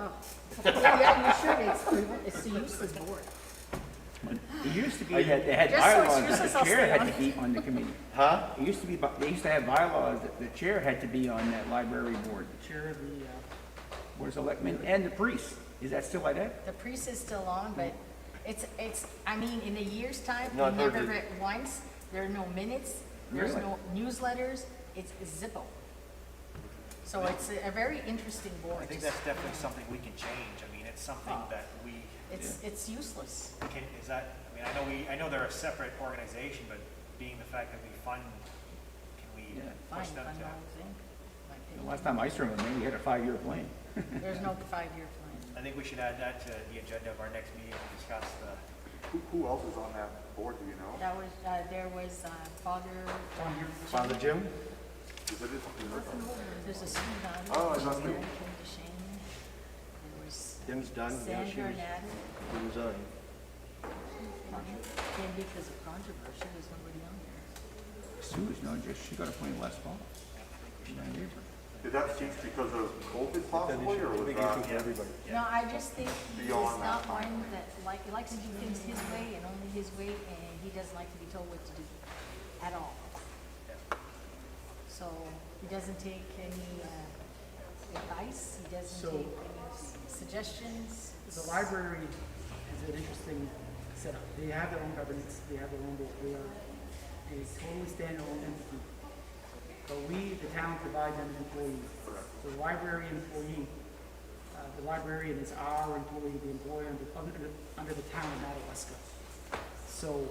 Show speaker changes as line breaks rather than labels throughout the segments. Oh. Yeah, you should, it's, it's the useless board.
It used to be that they had
Just so it's
bylaws that
useless,
the
I'll
chair
stay
had
on
to be on the committee.
Huh?
It used to be, by- they used to have bylaws that the chair had to be on that library board, the chair of the, uh, board of selectmen and the priest. Is that still like that?
The priest is still on, but it's, it's, I mean, in a year's time,
No,
we
I've heard
never
that-
read once, there are no minutes, there's
Really?
no newsletters, it's Zippo. So it's a a very interesting
I
board.
think that's definitely something we can change. I mean, it's something that we
It's, it's useless.
can, is that, I mean, I know we, I know they're a separate organization, but being the fact that we fund, can we
Yeah.
Fine,
push
fun
them
all
to?
thing, my
The
opinion.
last time I served, maybe we had a five-year plan.
There's no five-year plan.
I think we should add that to the agenda of our next meeting to discuss the,
Who, who else is on that board, do you know?
That was, uh, there was, uh, Father. uh,
Father Jim?
Is it, is
There's a student on. it.
Oh, I must be-
Mary came to Shane. There was uh,
Jim's done, you know, she
Sandra Natter.
was, she was, uh,
And because of controversy, there's nobody on there.
Sue is not just, she got appointed last fall. She's not here.
did that cease because of COVID possibly, or was that?
everybody.
No, I just think he's
Beyond
not
that.
one that like, he likes to do things his way and only his way, and he doesn't like to be told what to do at all. So he doesn't take any uh, advice, he doesn't
So-
take any suggestions.
The library is an interesting setup. They have their own governance, they have their own board, they are a totally standalone entity. But we, the town, provide them employees. The library employee, uh, the librarian is our employee, the employer under, under, the- under the town of Madawaska. So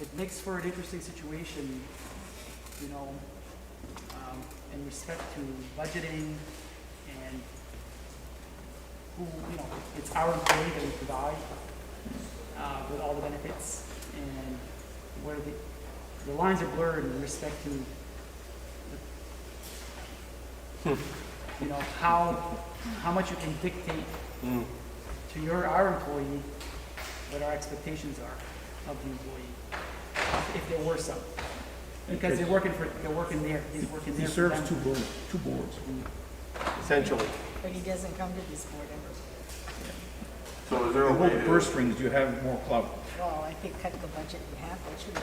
it makes for an interesting situation, you know, um, in respect to budgeting and who, you know, it's our employee that we provide, uh, with all the benefits, and where the, the lines are blurred in respect to, the- you know, how, how much you can dictate to your, our employee, what our expectations are of the employee, if there were some. Because they're working for, they're working there, he's working
He
there for them.
serves two boards, two boards.
essentially.
But he doesn't come to this board ever.
So is there
The
a
whole
way
purse
to,
strings, you have more clout.
Well, I think cut the budget in half, that should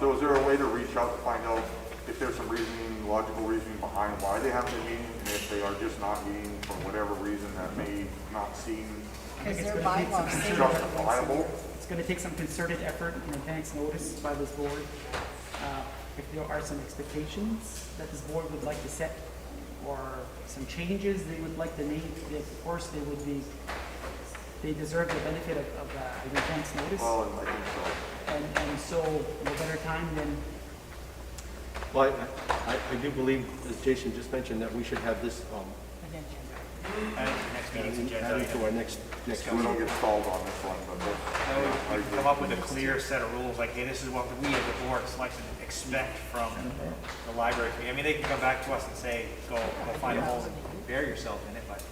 so is there a way to reach out to find out if there's some reasoning, logical reasoning behind why they haven't been meeting? And if they are just not meeting for whatever reason that may not seem
Because
it's
their
gonna take
bylaws
some
say
structure.
justifiable?
It's going to take some concerted effort and advance notice by this board. Uh, If there are some expectations that this board would like to set or some changes they would like to make, then of course they would be, they deserve the benefit of, of uh, an advance notice.
Well, I think so.
And, and so no better time than,
Well, I- I, I do believe, as Jason just mentioned, that we should have this, um,
add it to the next meeting's agenda.
added
item.
to our next, next
We
meeting.
don't get stalled on this one, but we'll-
That way We can come up with a clear set of rules, like, hey, this is what we as a board selection expect from the library. committee. I mean, they can come back to us and say, go, go find holes and bury yourself in it, but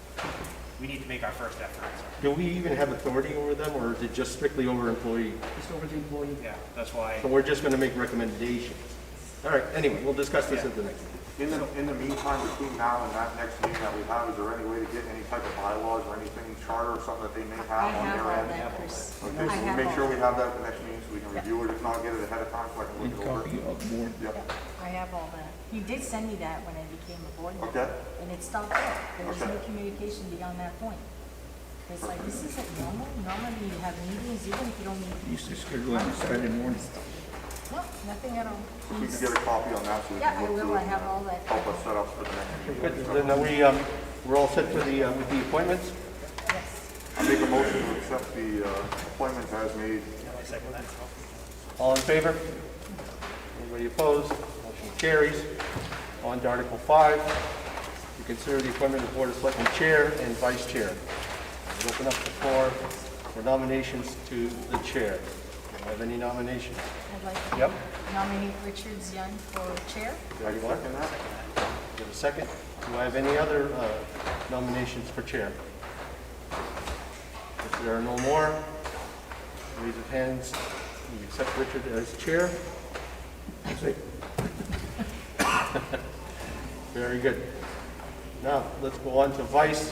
we need to make our first effort, so,
Do we even have authority over them, or is it just strictly over employee?
just over the employee.
yeah, that's why.
So we're just gonna make recommendations? All right, anyway, we'll discuss this at the next. meeting.
in the, in the meantime, between now and that next meeting that we have, is there any way to get any type of bylaws or anything, charter or something that they may
I
have on
have
their
all
end?
that, Chris. I
Okay, so we'll
have
make
all
sure we
that.
have that at the next meeting, so we can review it, if not, get it ahead of time, so I can
And
look it over.
copy of board.
Yep,
I have all that. He did send me that when I became a board member.
okay,
And it stopped there. There was no
Okay.
communication beyond that point. It's like, this isn't normal. Normally you have meetings even if you don't meet.
Used to schedule it on Saturday morning.
No, nothing at all.
if we can get a copy on that, so we
Yeah,
can
I
look
will.
through it.
I have all that.
and Help us set up for the next meeting.
Good, then are we, um, we're all set for the, uh, with the appointments?
Yes.
I make a motion to accept the uh, appointments as made.
I second that.
All in favor? Anybody opposed? Motion carries. On to Article 5, to consider the appointment of Board of Selectmen Chair and Vice Chair. We'll Open up the floor for nominations to the Chair. Do you have any nominations?
I'd like to
Yep.
nominate Richard Young for chair.
Do you want?
Second that?
Do you have a second? Do I have any other uh, nominations for Chair? If there are no more, raise of hands, we accept Richard as Chair. Very good. Now, let's go on to Vice